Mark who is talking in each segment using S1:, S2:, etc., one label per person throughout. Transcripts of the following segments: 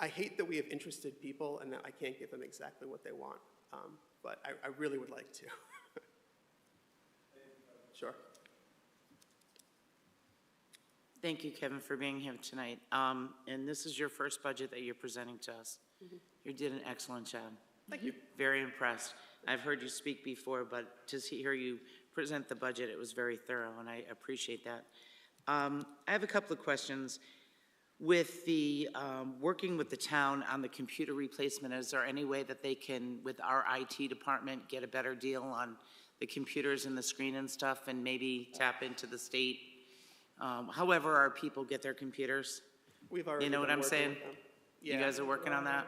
S1: I hate that we have interested people and that I can't give them exactly what they want, um, but I, I really would like to. Sure.
S2: Thank you, Kevin, for being here tonight. Um, And this is your first budget that you're presenting to us. You did an excellent job.
S1: Mm-hmm. Thank you.
S2: Very impressed. I've heard you speak before, but to hear you present the budget, it was very thorough, and I appreciate that. Um, I have a couple of questions. With the, um, working with the town on the computer replacement, is there any way that they can, with our IT department, get a better deal on the computers and the screen and stuff, and maybe tap into the state? Um, However our people get their computers?
S1: We've already
S2: know what
S1: been
S2: I'm
S1: working
S2: saying?
S1: with them.
S2: You
S1: Yeah.
S2: guys are working on that?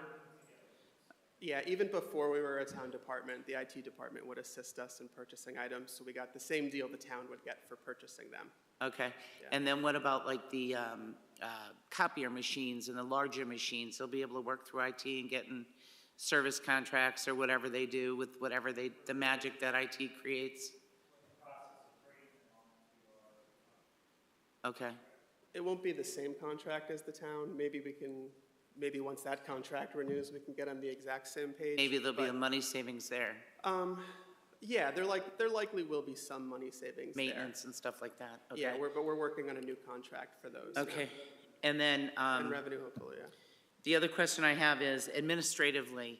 S1: Yeah, even before we were a town department, the IT department would assist us in purchasing items, so we got the same deal the town would get for purchasing them.
S2: Okay, and then what about like the um, uh, copier machines and the larger machines? They'll be able to work through IT and get in service contracts or whatever they do with whatever they, the magic that IT creates? Okay,
S1: It won't be the same contract as the town, maybe we can, maybe once that contract renews, we can get on the exact same page.
S2: maybe there'll be a
S1: but,
S2: money savings there,
S1: Um, yeah, there like, there likely will be some money savings there.
S2: maintenance and stuff like that, okay?
S1: Yeah, we're, but we're working on a new contract for those. yeah.
S2: Okay, and then, um.
S1: And revenue hopefully, yeah.
S2: The other question I have is administratively,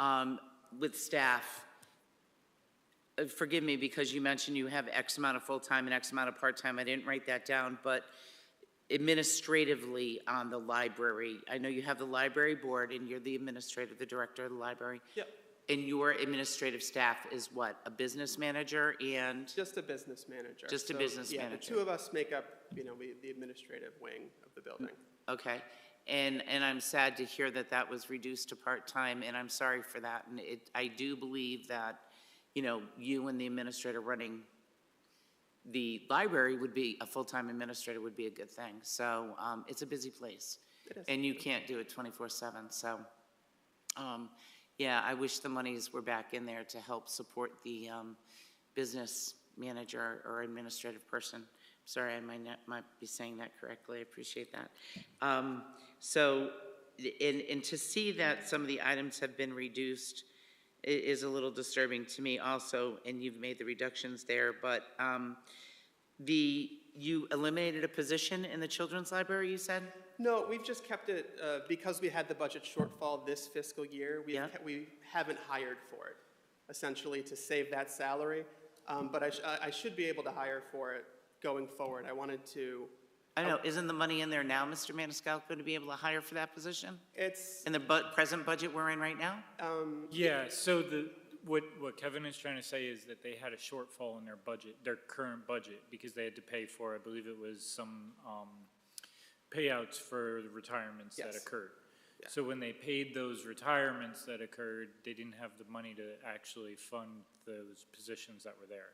S2: um, with staff, uh, forgive me because you mentioned you have X amount of full-time and X amount of part-time. I didn't write that down, but administratively on the library, I know you have the library board and you're the administrator, the director of the library.
S1: Yep,
S2: And your administrative staff is what, a business manager and,
S1: just a business manager.
S2: Just a
S1: So,
S2: business
S1: Yeah, the
S2: manager.
S1: two of us make up, you know, we- the administrative wing of the building.
S2: okay? And, and I'm sad to hear that that was reduced to part-time, and I'm sorry for that. And it, I do believe that, you know, you and the administrator running the library would be, a full-time administrator would be a good thing. So um, it's a busy place.
S1: It is.
S2: And you can't do it 24/7, so, um, yeah, I wish the monies were back in there to help support the um, business manager or administrative person. Sorry, I might not, might be saying that correctly, I appreciate that. Um, So, and, and to see that some of the items have been reduced i- is a little disturbing to me also, and you've made the reductions there, but um, the, you eliminated a position in the children's library, you said?
S1: No, we've just kept it, uh, because we had the budget shortfall this fiscal year, we,
S2: Yeah.
S1: we haven't hired for it, essentially, to save that salary. Um, But I, sh- I I should be able to hire for it going forward. I wanted to,
S2: I know, isn't the money in there now, Mr. Maniscalco, to be able to hire for that position?
S1: it's,
S2: In the bu, present budget we're in right now?
S3: Yeah, so the, what, what Kevin is trying to say is that they had a shortfall in their budget, their current budget, because they had to pay for, I believe it was some, um, payouts for the retirements that
S1: Yes.
S3: occurred. So when they paid those retirements that occurred, they didn't have the money to actually fund those positions that were there.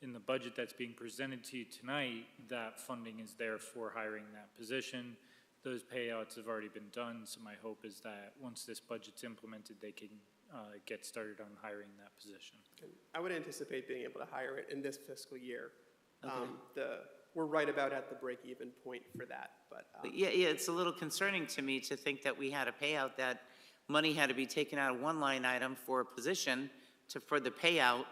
S3: In the budget that's being presented to you tonight, that funding is there for hiring that position. Those payouts have already been done, so my hope is that once this budget's implemented, they can uh, get started on hiring that position.
S1: I would anticipate being able to hire it in this fiscal year. Um, The, we're right about at the break-even point for that, but, um,
S2: But Yeah, yeah, it's a little concerning to me to think that we had a payout, that money had to be taken out of one line item for a position to, for the payout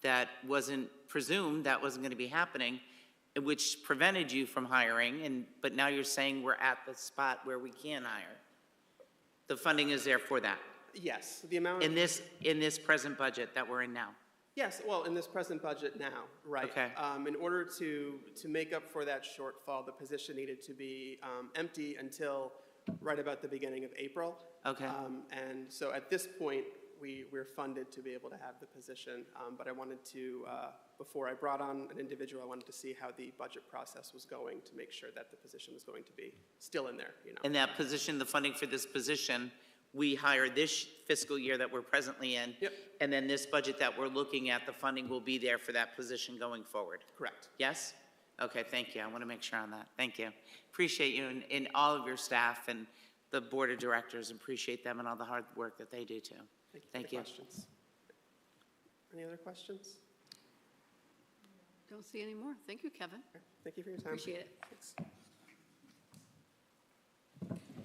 S2: that wasn't presumed, that wasn't gonna be happening, which prevented you from hiring, and, but now you're saying we're at the spot where we can hire. The funding is there for that,
S1: yes, the amount.
S2: in this, in this present budget that we're in now.
S1: Yes, well, in this present budget now, right.
S2: Okay.
S1: Um, In order to, to make up for that shortfall, the position needed to be um, empty until right about the beginning of April.
S2: Okay.
S1: Um, And so at this point, we, we're funded to be able to have the position. Um, But I wanted to, uh, before I brought on an individual, I wanted to see how the budget process was going to make sure that the position was going to be still in there, you know.
S2: And that position, the funding for this position, we hire this fiscal year that we're presently in.
S1: Yep.
S2: And then this budget that we're looking at, the funding will be there for that position going forward.
S1: Correct.
S2: Yes? Okay, thank you. I want to make sure on that. Thank you. Appreciate you and, and all of your staff and the board of directors, appreciate them and all the hard work that they do too.
S1: Any
S2: Thank you.
S1: questions? Any other questions?
S4: Don't see any more. Thank you, Kevin.
S1: Thank you for your time.
S4: Appreciate it.
S1: Thanks.